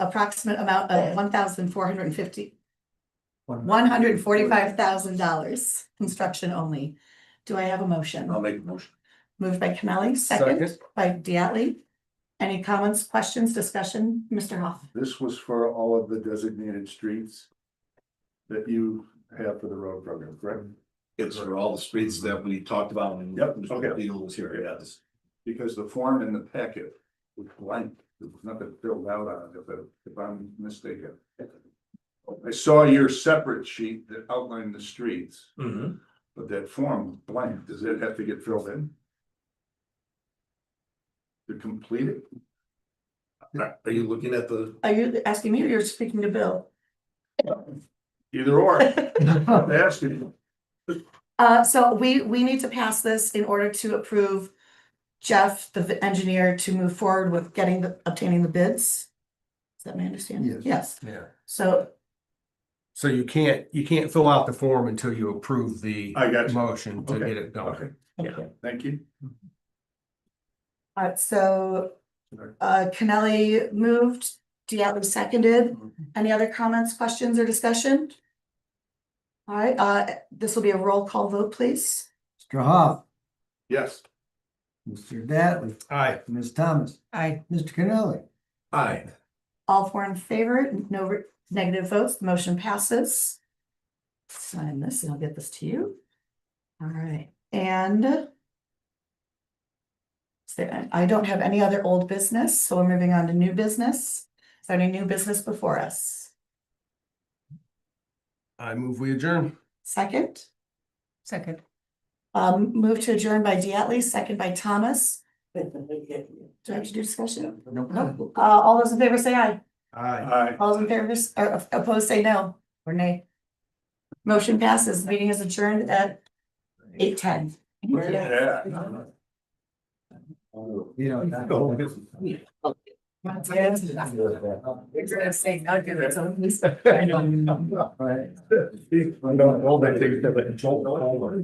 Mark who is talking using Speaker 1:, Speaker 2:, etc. Speaker 1: approximate amount of one thousand four hundred and fifty,
Speaker 2: One-
Speaker 1: one hundred and forty-five thousand dollars, construction only. Do I have a motion?
Speaker 3: Um,
Speaker 2: I'll make a motion.
Speaker 1: Moved by Kennelly, second by Diatley. Any comments, questions, discussion? Mr. Hoff?
Speaker 3: This was for all of the designated streets that you have for the road program, correct?
Speaker 2: It's for all the streets that we talked about and.
Speaker 3: Mm-hmm. Yep,
Speaker 2: Mr.
Speaker 3: okay.
Speaker 2: Beal was here, yes.
Speaker 3: Because the form in the packet was blank, there was nothing filled out on it, if, I- if I'm mistaken. I saw your separate sheet that outlined the streets, but that form was blank, does it have to get filled in? To complete it?
Speaker 2: Are are you looking at the?
Speaker 1: Are you asking me or you're speaking to Bill?
Speaker 3: Either or, I'm asking,
Speaker 1: Uh, so we, we need to pass this in order to approve Jeff, the v- engineer, to move forward with getting the, obtaining the bids. Is that my understanding?
Speaker 3: Yes.
Speaker 1: Yes,
Speaker 4: Yeah,
Speaker 1: so
Speaker 4: so you can't, you can't fill out the form until you approve the
Speaker 3: I got you.
Speaker 4: motion to
Speaker 3: Okay.
Speaker 4: get it
Speaker 3: okay,
Speaker 4: done.
Speaker 1: Okay.
Speaker 3: thank you.
Speaker 1: Alright, Uh, so
Speaker 3: Sure.
Speaker 1: uh Kennelly moved, Diallo seconded. Any other comments, questions or discussion? Alright, uh this will be a roll call vote, please.
Speaker 5: Mr. Hoff,
Speaker 3: Yes.
Speaker 5: Mr. Dattley,
Speaker 4: Aye.
Speaker 5: Ms. Thomas. Aye. Mr. Cannelli.
Speaker 2: Aye.
Speaker 1: All four in favor, no re- negative votes, the motion passes. Sign this and I'll get this to you. Alright, and is there- I don't have any other old business, so we're moving on to new business. Is there any new business before us?
Speaker 4: I move we adjourn.
Speaker 1: Second?
Speaker 6: Second.
Speaker 1: Um, move to adjourn by Diatley, second by Thomas. Do I have to do discussion? Nope. Uh, all those in favor say aye.
Speaker 4: Aye.
Speaker 3: Aye.
Speaker 1: All those in favor, s- or opposed, say no, or nay. Motion passes. Meeting is adjourned at eight ten.
Speaker 3: Yeah.
Speaker 5: You know,
Speaker 2: Oh,
Speaker 5: that-
Speaker 6: You're gonna say nugget or something.
Speaker 5: Right.
Speaker 3: I don't know, they think they're like, Joel Pollard.